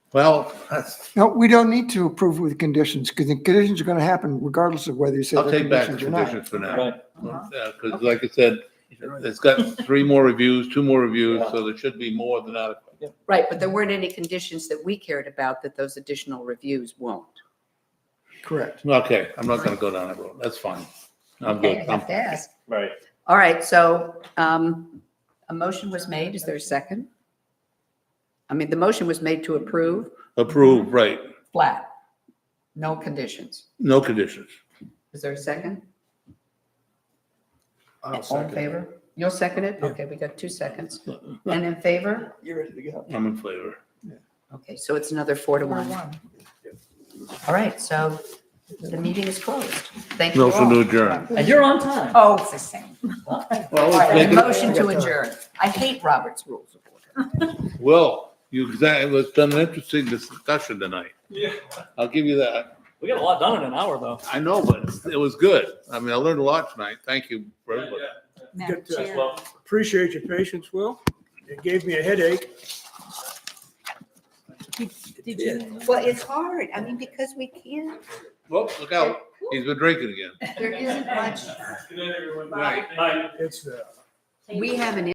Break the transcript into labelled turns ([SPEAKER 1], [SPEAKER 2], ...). [SPEAKER 1] Well, that's-
[SPEAKER 2] No, we don't need to approve with conditions because the conditions are going to happen regardless of whether you say
[SPEAKER 1] I'll
[SPEAKER 2] they're
[SPEAKER 1] take back the
[SPEAKER 2] conditions or
[SPEAKER 1] conditions
[SPEAKER 2] not.
[SPEAKER 1] for now.
[SPEAKER 3] Right,
[SPEAKER 1] Because like I said, it's got three more reviews, two more reviews, so there should be more than adequate.
[SPEAKER 4] Right, but there weren't any conditions that we cared about that those additional reviews won't.
[SPEAKER 2] Correct.
[SPEAKER 1] Okay, I'm not gonna go down that road. That's fine. I'm good.
[SPEAKER 4] Okay, I
[SPEAKER 1] I'm-
[SPEAKER 4] have to ask.
[SPEAKER 3] right.
[SPEAKER 4] All right, so um, a motion was made. Is there a second? I mean, the motion was made to approve
[SPEAKER 1] Approve, right.
[SPEAKER 4] flat, no conditions.
[SPEAKER 1] No conditions.
[SPEAKER 4] Is there a second?
[SPEAKER 5] I'll
[SPEAKER 4] All in
[SPEAKER 5] second. it.
[SPEAKER 4] favor? You'll second it? Okay, we got two seconds. And in favor?
[SPEAKER 5] You're ready to go.
[SPEAKER 1] I'm in favor.
[SPEAKER 4] Okay, so it's another four to one. All right, so the meeting is closed. Thank you
[SPEAKER 1] Motion to
[SPEAKER 4] all.
[SPEAKER 1] adjourn.
[SPEAKER 3] And you're on time.
[SPEAKER 4] Oh, it's the same.
[SPEAKER 1] Well,
[SPEAKER 4] All
[SPEAKER 1] let's
[SPEAKER 4] right,
[SPEAKER 1] make
[SPEAKER 4] a
[SPEAKER 1] it-
[SPEAKER 4] motion to adjourn. I hate Robert's rules of order.
[SPEAKER 1] Well, you, exactly, it's been an interesting discussion tonight.
[SPEAKER 3] Yeah.
[SPEAKER 1] I'll give you that.
[SPEAKER 3] We got a lot done in an hour, though.
[SPEAKER 1] I know, but it's- it was good. I mean, I learned a lot tonight. Thank you for everybody.
[SPEAKER 5] Good, uh,
[SPEAKER 3] Thanks, Will.
[SPEAKER 5] Appreciate your patience, Will. It gave me a headache.
[SPEAKER 6] Did you?
[SPEAKER 4] Well, it's hard. I mean, because we can't,
[SPEAKER 1] Well, look out. He's been drinking again.
[SPEAKER 4] there isn't much,
[SPEAKER 3] Bye.
[SPEAKER 5] It's, uh,
[SPEAKER 4] we have an